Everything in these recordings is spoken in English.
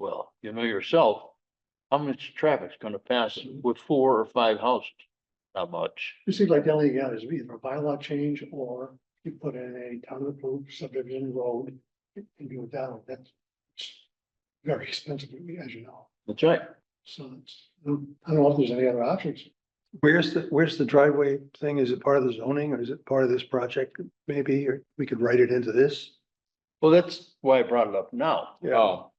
you know yourself, how much traffic's gonna pass with four or five houses? Not much. It seems like the only thing out is either a bylaw change or you put in a town approved subdivision road and do it that way. That's very expensive, as you know. That's right. So it's, I don't know if there's any other options. Where's the, where's the driveway thing? Is it part of the zoning or is it part of this project? Maybe, or we could write it into this? Well, that's why I brought it up now. Yeah. Oh,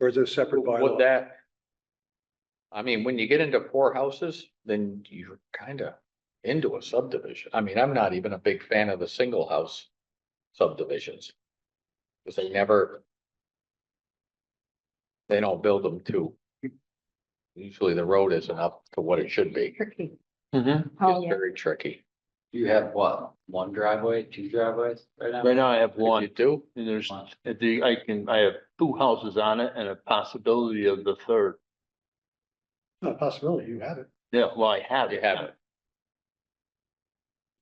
Or is it a separate would bylaw? that? I mean, when you get into four houses, then you're kinda into a subdivision. I mean, I'm not even a big fan of the single house subdivisions. Cause they never. They don't build them to. Usually the road isn't up to what it should be. Tricky. Oh, Mm-hmm. It's yeah. very tricky. You have what, one driveway, two driveways right now? Right now I have What one. you do, And there's, at the, I can, I have two houses on it and a possibility of the third. Not a possibility, you have it. Yeah, well, I have. you have it.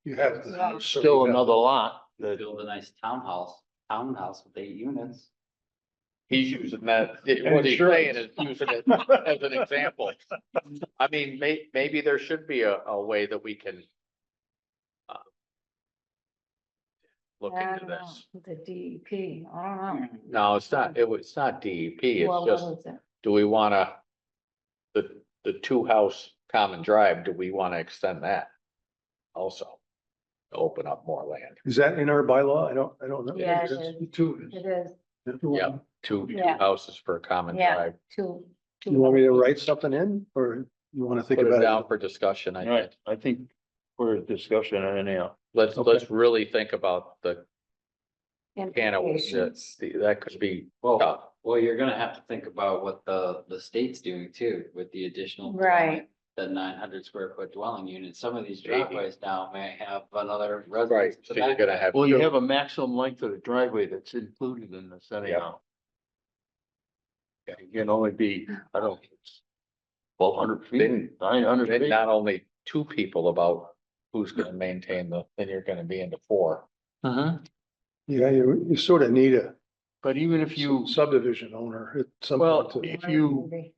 You have the. Still another lot You that Build a nice townhouse, townhouse with eight units. He's using that, what he's saying is using it as an example. I mean, may, maybe there should be a, a way that we can. uh, Look I into don't know, this. The DEP, I don't know. No, it's not, it was, it's not DEP, Well, it's what just, is it? do we wanna? The, the two house common drive, do we wanna extend that? Also, to open up more land, Is that in our bylaw? I don't, I don't know. Yeah, it is. The two is. It is yeah, two, two Yeah. houses for a common Yeah. drive. two. two You want me to write something in or you want to think Put it down about for discussion, I think. Right, I think we're at discussion anyhow. Let's, Okay. let's really think about the can of worms that, implications. that could be Well, tough. well, you're gonna have to think about what the, the state's doing too, with the additional. Right. The nine hundred square foot dwelling unit, some of these Maybe. driveways now may have another Right, residence. so you're gonna have. Well, you have a maximum length of the driveway that's included in this anyhow. It can only be, I don't, twelve hundred feet, Then- nine hundred Then feet. not only two people about who's gonna maintain the, then you're gonna be into four. Mhm. it? Yeah, you, you sort of need a But even if you, subdivision owner at some Well, point to- If you- Maybe.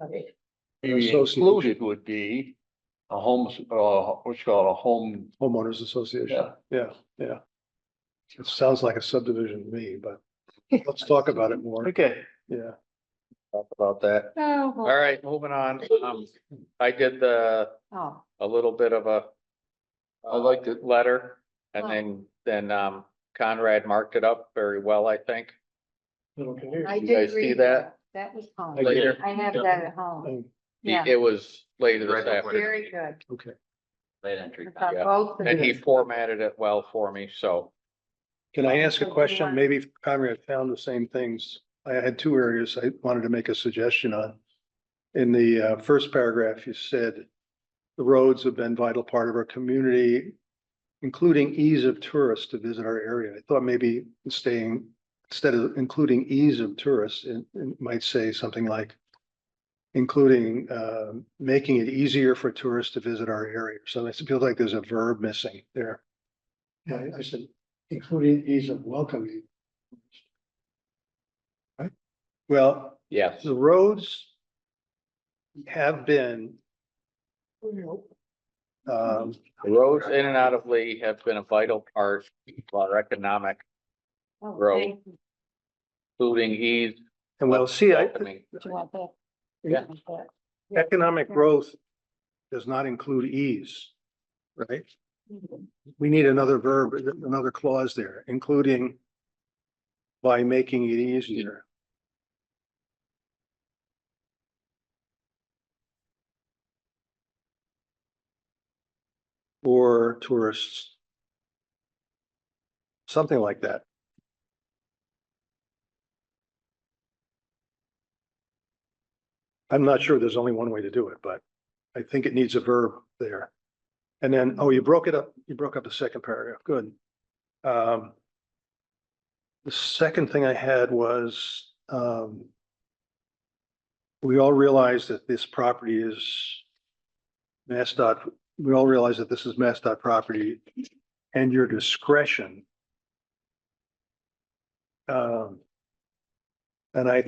Okay. you Association. included would be a home, uh, what's called a home, homeowners association. yeah. Yeah, yeah. It sounds like a subdivision to me, but let's talk about it more. Okay. Yeah. Talk about that. Oh, All well, right, moving on. Um, I did the, oh, a little bit of a. uh, I liked it. Letter and Oh. then, then, um, Conrad marked it up very well, I think. Okay. I You did guys see read that? that. That was home. I Later. I have that at home. Um, Yeah, It was later this Right before afternoon. very good. Okay. Late entry. I thought Yeah. both of And he you. formatted it well for me, so. Can I ask So a do you question? want- Maybe if Conrad found the same things. I had two areas I wanted to make a suggestion on. In the uh, first paragraph, you said the roads have been vital part of our community, including ease of tourists to visit our area. I thought maybe staying, instead of including ease of tourists, it it might say something like including uh, making it easier for tourists to visit our area. So it feels like there's a verb missing there. Yeah, I- I said, including ease of welcoming. Well, Yes. the roads have been, um, Roads in and out of Lee have been a vital part of our economic, Oh, Row. thank you. including ease. and well, see, I, welcoming. Do you want that? Yeah. economic growth does not include ease, right? We need another verb, another clause there, including by making it easier. For tourists. Something like that. I'm not sure there's only one way to do it, but I think it needs a verb there. And then, oh, you broke it up, you broke up the second paragraph, good. Um. The second thing I had was, um. We all realize that this property is. Mass dot, we all realize that this is Mass dot property and your discretion. Um. And I